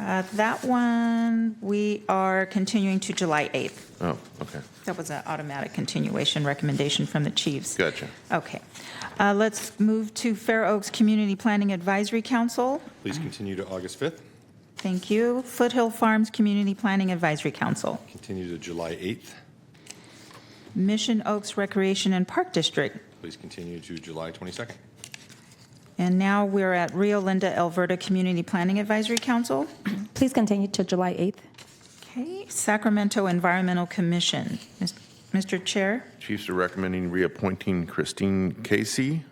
Uh, That one, we are continuing to July 8th. Oh, okay. That was an automatic continuation recommendation from the chiefs. Gotcha. Okay. Uh, Let's move to Fair Oaks Community Planning Advisory Council. Please continue to August 5th, Thank you. Foothill Farms Community Planning Advisory Council. continue to July 8th, Mission Oaks Recreation and Park District. please continue to July 22nd. And now we're at Rio Linda Alberta Community Planning Advisory Council. Please continue to July 8th. Okay, Sacramento Environmental Commission. Mis- Mr. Chair, Chiefs are recommending reappointing Christine Casey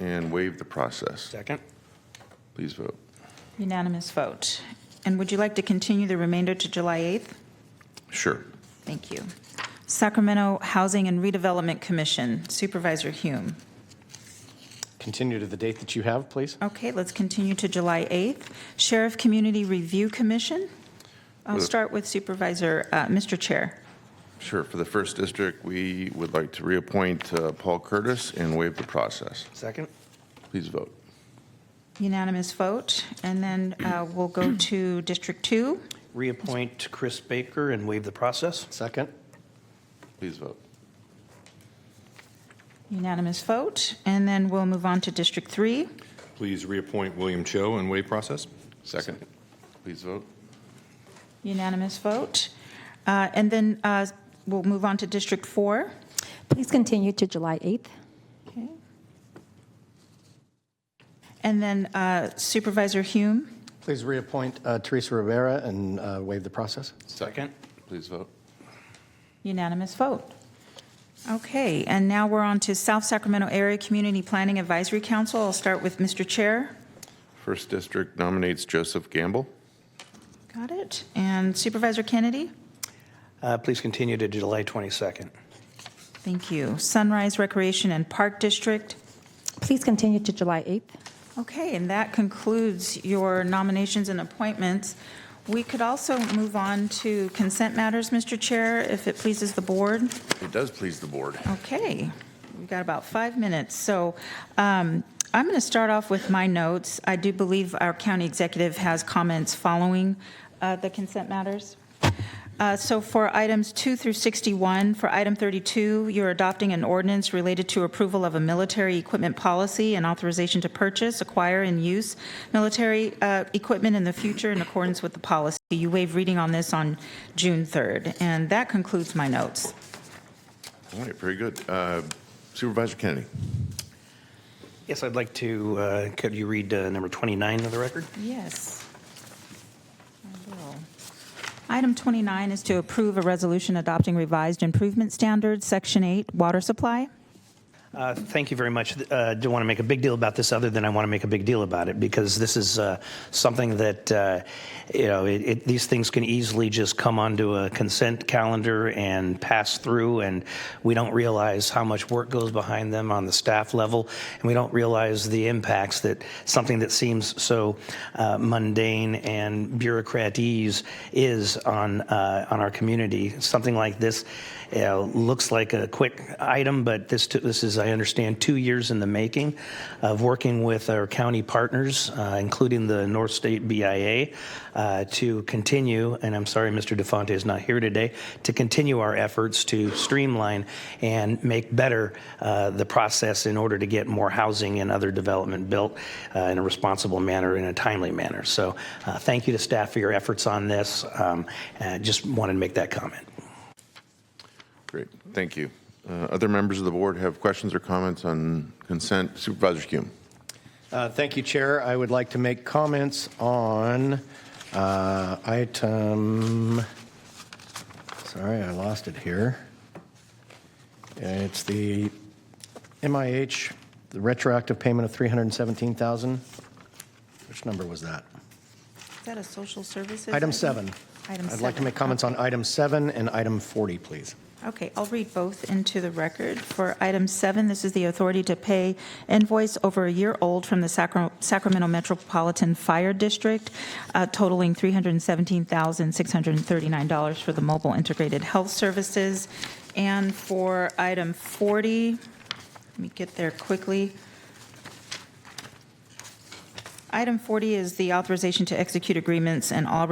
and waive the process. Second. Please vote. unanimous vote. And would you like to continue the remainder to July 8th? Sure. Thank you. Sacramento Housing and Redevelopment Commission, Supervisor Hume. Continue to the date that you have, please. Okay, let's continue to July 8th. Sheriff Community Review Commission. I'll Uh, start with Supervisor, uh, Mr. Chair. Sure. For the first district, we would like to reappoint uh, Paul Curtis and waive the process. Second. Please vote. Unanimous vote. And then uh, we'll go to District 2. Reappoint Chris Baker and waive the process. Second. Please vote. Unanimous vote. And then we'll move on to District 3. Please reappoint William Cho and waive process. Second. Please vote. Unanimous vote. Uh, And then uh, we'll move on to District 4. Please continue to July 8th. Okay. And then uh, Supervisor Hume. Please reappoint uh, Teresa Rivera and uh, waive the process. Second. Please vote. Unanimous vote. Okay, and now we're on to South Sacramento Area Community Planning Advisory Council. I'll start with Mr. Chair. First district nominates Joseph Gamble. Got it. And Supervisor Kennedy? Uh, Please continue to July 22nd. Thank you. Sunrise Recreation and Park District. Please continue to July 8th. Okay, and that concludes your nominations and appointments. We could also move on to consent matters, Mr. Chair, if it pleases the board. It does please the board. Okay, we've got about five minutes, so um, I'm going to start off with my notes. I do believe our county executive has comments following uh, the consent matters. Uh, So for items 2 through 61, for item 32, you're adopting an ordinance related to approval of a military equipment policy and authorization to purchase, acquire, and use military uh, equipment in the future in accordance with the policy. You waive reading on this on June 3rd, and that concludes my notes. All right, very good. Uh, Supervisor Kennedy. Yes, I'd like to, uh, could you read uh, number 29 of the record? Yes. I will. Item 29 is to approve a resolution adopting revised improvement standards, Section 8, water supply. Uh, Thank you very much. Uh, Don't want to make a big deal about this, other than I want to make a big deal about it, because this is uh, something that, uh, you know, it- it- these things can easily just come onto a consent calendar and pass through, and we don't realize how much work goes behind them on the staff level, and we don't realize the impacts that something that seems so uh, mundane and bureaucratese is on, uh, on our community. Something like this yeah, looks like a quick item, but this, t- this is, I understand, two years in the making of working with our county partners, uh, including the North State BIA, uh, to continue, and I'm sorry Mr. DeFonte is not here today, to continue our efforts to streamline and make better uh, the process in order to get more housing and other development built uh, in a responsible manner, in a timely manner. So uh, thank you to staff for your efforts on this. Um, uh, Just wanted to make that comment. Great, thank you. Uh, Other members of the board have questions or comments on consent? Supervisor Hume. Uh, Thank you, Chair. I would like to make comments on uh, item, sorry, I lost it here. It's the MIH, the retroactive payment of 317000 Which number was that? Is that a social services? Item seven. Item I'd like to seven. make comments on item seven and item 40, please. Okay, I'll read both into the record. For item seven, this is the authority to pay invoice over a year old from the Sacra- Sacramento Metropolitan Fire District uh, totaling $317,639 for the mobile integrated health services. And for item 40, let me get there quickly. Item 40 is the authorization to execute agreements and all